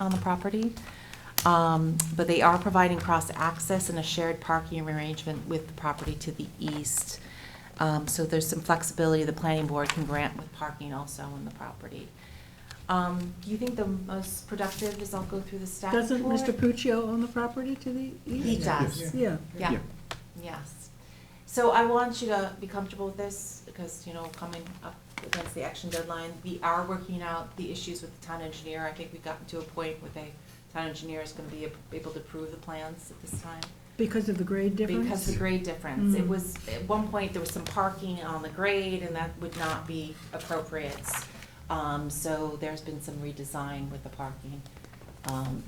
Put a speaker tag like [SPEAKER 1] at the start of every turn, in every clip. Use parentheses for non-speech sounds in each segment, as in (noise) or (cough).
[SPEAKER 1] on the property. Um, But they are providing cross-access and a shared parking arrangement with the property to the east. Um, So there's some flexibility the planning board can grant with parking also on the property. Um, Do you think the most productive is I'll go through the staff
[SPEAKER 2] Doesn't
[SPEAKER 1] report?
[SPEAKER 2] Mr. Puccio own the property to the east?
[SPEAKER 1] He does.
[SPEAKER 2] Yeah.
[SPEAKER 1] Yeah,
[SPEAKER 3] Yeah.
[SPEAKER 1] yes. So I want you to be comfortable with this, because, you know, coming up against the action deadline, we are working out the issues with the town engineer. I think we've gotten to a point where the town engineer is gonna be able to approve the plans at this time.
[SPEAKER 2] Because of the grade difference?
[SPEAKER 1] Because the grade difference. It
[SPEAKER 2] Mm.
[SPEAKER 1] was, at one point, there was some parking on the grade, and that would not be appropriate. Um, so there's been some redesign with the parking. Um,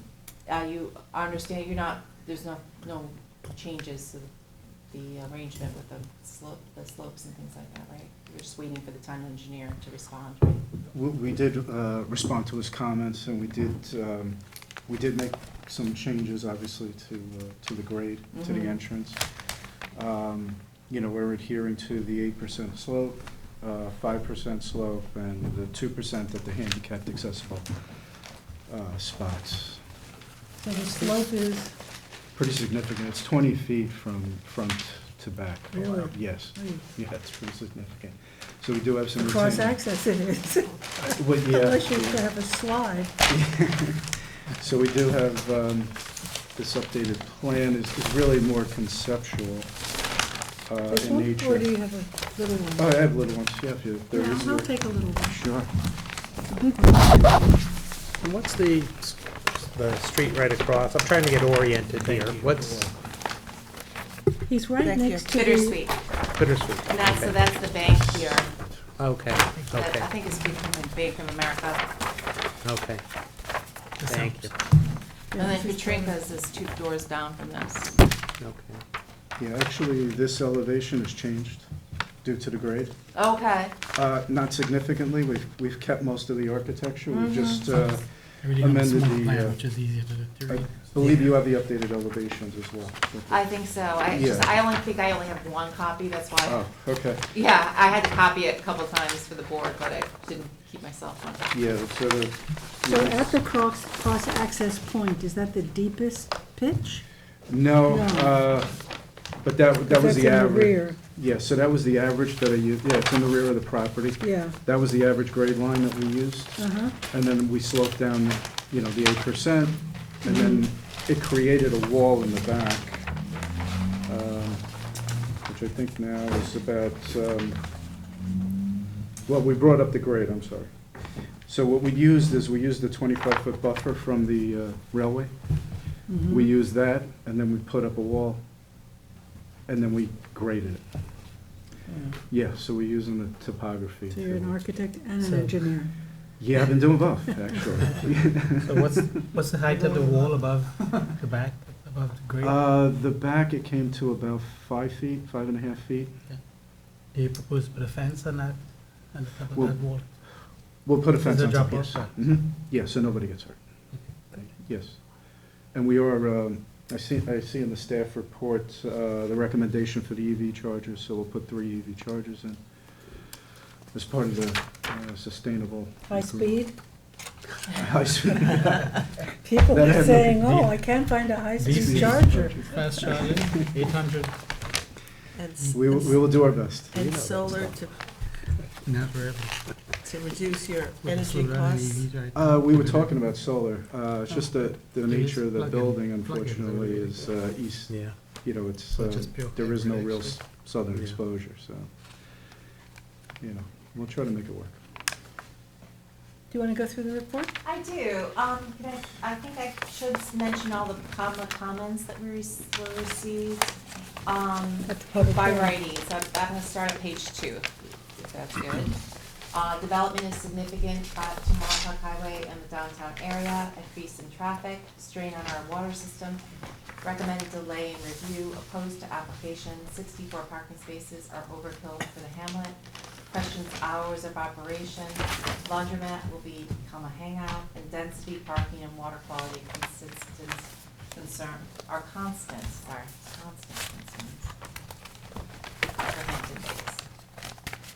[SPEAKER 1] are you, I understand you're not, there's no, no changes to the arrangement with the slope, the slopes and things like that, right? You're just waiting for the town engineer to respond, right?
[SPEAKER 3] We- We did uh, respond to his comments, and we did, um, we did make some changes, obviously, to, uh, to the grade, to
[SPEAKER 2] Mm-hmm.
[SPEAKER 1] Mhm.
[SPEAKER 3] the entrance. Um, You know, we're adhering to the eight percent slope, uh, five percent slope, and the two percent at the handicapped accessible uh, spots.
[SPEAKER 2] So the slope is,
[SPEAKER 3] Pretty significant, it's twenty feet from front to back.
[SPEAKER 2] Really?
[SPEAKER 3] Yes,
[SPEAKER 2] oh,
[SPEAKER 3] yeah, it's pretty significant. So we do have some.
[SPEAKER 2] cross
[SPEAKER 3] retaining-
[SPEAKER 2] access it is, (laughs)
[SPEAKER 3] Uh, well, yeah, Uh,
[SPEAKER 2] unless you
[SPEAKER 3] yeah.
[SPEAKER 2] have a slide.
[SPEAKER 3] (laughs) So we do have, um, this updated plan is is really more conceptual uh,
[SPEAKER 2] This
[SPEAKER 3] in
[SPEAKER 2] one,
[SPEAKER 3] nature.
[SPEAKER 2] or do you have a little
[SPEAKER 3] Oh,
[SPEAKER 2] one?
[SPEAKER 3] I have little ones, yeah, if you, there is.
[SPEAKER 2] Yeah, I'll take a little one.
[SPEAKER 3] Sure.
[SPEAKER 4] And what's the, s- the street right across? I'm trying to get oriented here. What's
[SPEAKER 2] He's right next to the.
[SPEAKER 1] Bittersweet.
[SPEAKER 4] Bittersweet?
[SPEAKER 1] And that's, so
[SPEAKER 4] Okay.
[SPEAKER 1] that's the bank here.
[SPEAKER 4] Okay,
[SPEAKER 1] That I
[SPEAKER 4] okay,
[SPEAKER 1] think is becoming Bank of America.
[SPEAKER 4] okay. Thank you.
[SPEAKER 1] And
[SPEAKER 2] Yeah,
[SPEAKER 1] then
[SPEAKER 2] this is
[SPEAKER 1] Katrinka's is two doors down from this.
[SPEAKER 4] Okay.
[SPEAKER 3] Yeah, actually, this elevation has changed due to the grade.
[SPEAKER 1] Okay.
[SPEAKER 3] Uh, Not significantly, we've, we've kept most of the architecture,
[SPEAKER 2] Mm-hmm.
[SPEAKER 3] we've just, uh,
[SPEAKER 5] Everything on the
[SPEAKER 3] amended
[SPEAKER 5] small
[SPEAKER 3] the, uh,
[SPEAKER 5] plan, which is easier to
[SPEAKER 3] I
[SPEAKER 5] read.
[SPEAKER 3] (laughs) believe you have the updated elevations as well.
[SPEAKER 1] I think so. I just,
[SPEAKER 3] Yeah.
[SPEAKER 1] I only think I only have one copy, that's why.
[SPEAKER 3] Oh, okay,
[SPEAKER 1] Yeah, I had to copy it a couple times for the board, but I didn't keep myself on.
[SPEAKER 3] yeah, so the.
[SPEAKER 2] So at the cross, cross access point, is that the deepest pitch?
[SPEAKER 3] No,
[SPEAKER 2] No.
[SPEAKER 3] uh, but that, that
[SPEAKER 2] That's
[SPEAKER 3] was the
[SPEAKER 2] in
[SPEAKER 3] average.
[SPEAKER 2] rear,
[SPEAKER 3] Yeah, so that was the average that I used, yeah, it's in the rear of the property.
[SPEAKER 2] Yeah,
[SPEAKER 3] That was the average grade line that we used,
[SPEAKER 2] uh-huh,
[SPEAKER 3] and then we sloped down, you know, the eight percent, and then
[SPEAKER 2] Mm-hmm.
[SPEAKER 3] it created a wall in the back, um, which I think now is about, um, well, we brought up the grade, I'm sorry. So what we used is, we used the twenty-five foot buffer from the uh, railway.
[SPEAKER 2] Mm-hmm.
[SPEAKER 3] We used that, and then we put up a wall, and then we graded it. Yeah, so we're using the topography.
[SPEAKER 2] so you're an
[SPEAKER 3] to-
[SPEAKER 2] architect and an
[SPEAKER 4] So-
[SPEAKER 2] engineer.
[SPEAKER 3] Yeah, I've been doing
[SPEAKER 2] (laughs)
[SPEAKER 3] both, actually.
[SPEAKER 5] So what's, what's the height of the wall above the back, above the grade?
[SPEAKER 3] Uh, the back, it came to about five feet, five and a half feet.
[SPEAKER 5] Do you propose to put a fence on that, on the top of
[SPEAKER 3] Well,
[SPEAKER 5] that wall?
[SPEAKER 3] We'll put a fence
[SPEAKER 5] Is it
[SPEAKER 3] on top,
[SPEAKER 5] drop-off?
[SPEAKER 3] yes. Mhm. Yeah, so nobody gets hurt. Yes. And we are, um, I see, I see in the staff report, uh, the recommendation for the EV chargers, so we'll put three EV chargers in as part of the uh, sustainable.
[SPEAKER 2] High speed,
[SPEAKER 3] (laughs)
[SPEAKER 2] (laughs)
[SPEAKER 3] High speed.
[SPEAKER 2] people
[SPEAKER 3] That
[SPEAKER 2] are
[SPEAKER 3] has
[SPEAKER 2] saying,
[SPEAKER 3] nothing to
[SPEAKER 2] oh,
[SPEAKER 3] do-
[SPEAKER 2] I can't find a high-speed
[SPEAKER 5] These-
[SPEAKER 2] charger.
[SPEAKER 5] Fast charging, eight hundred?
[SPEAKER 6] And, s-
[SPEAKER 3] We will, we will do our best.
[SPEAKER 6] and solar to,
[SPEAKER 5] Not really.
[SPEAKER 6] to reduce your
[SPEAKER 5] With the
[SPEAKER 6] energy
[SPEAKER 5] solar
[SPEAKER 6] costs.
[SPEAKER 5] EVs right
[SPEAKER 3] Uh,
[SPEAKER 5] now.
[SPEAKER 3] we were talking about solar, uh, it's just that the
[SPEAKER 5] It is
[SPEAKER 3] nature of the
[SPEAKER 5] plug-in-
[SPEAKER 3] building
[SPEAKER 5] plug-in, so
[SPEAKER 3] unfortunately
[SPEAKER 5] everything
[SPEAKER 3] is, uh, east,
[SPEAKER 4] Yeah.
[SPEAKER 3] you know, it's,
[SPEAKER 5] So
[SPEAKER 3] uh,
[SPEAKER 5] just pure
[SPEAKER 3] there is no
[SPEAKER 5] hybrid,
[SPEAKER 3] real
[SPEAKER 5] actually.
[SPEAKER 3] s- southern
[SPEAKER 4] Yeah.
[SPEAKER 3] exposure, so. You know, we'll try to make it work.
[SPEAKER 2] Do you want to go through the report?
[SPEAKER 1] I do. Um, can I, I think I should mention all the com- comments that we rec- were received, um,
[SPEAKER 2] At the public
[SPEAKER 1] by
[SPEAKER 2] hearing.
[SPEAKER 1] writing. So I'm, I'm gonna start at page two, if that's good. (clears throat) Uh, development is significant uh, to Montauk Highway and the downtown area, increase in traffic, strain on our water system. Recommended delay in review, opposed to application, sixty-four parking spaces are overkill for the hamlet. Questions hours of operation, laundromat will be become a hangout, and density, parking, and water quality consistent concern, are constant, sorry, constant concerns. Recommended dates.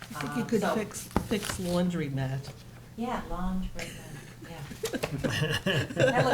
[SPEAKER 6] I think
[SPEAKER 1] Um,
[SPEAKER 6] you could
[SPEAKER 1] so-
[SPEAKER 6] fix, fix laundry mat.
[SPEAKER 1] Yeah, laundromat, yeah. That looked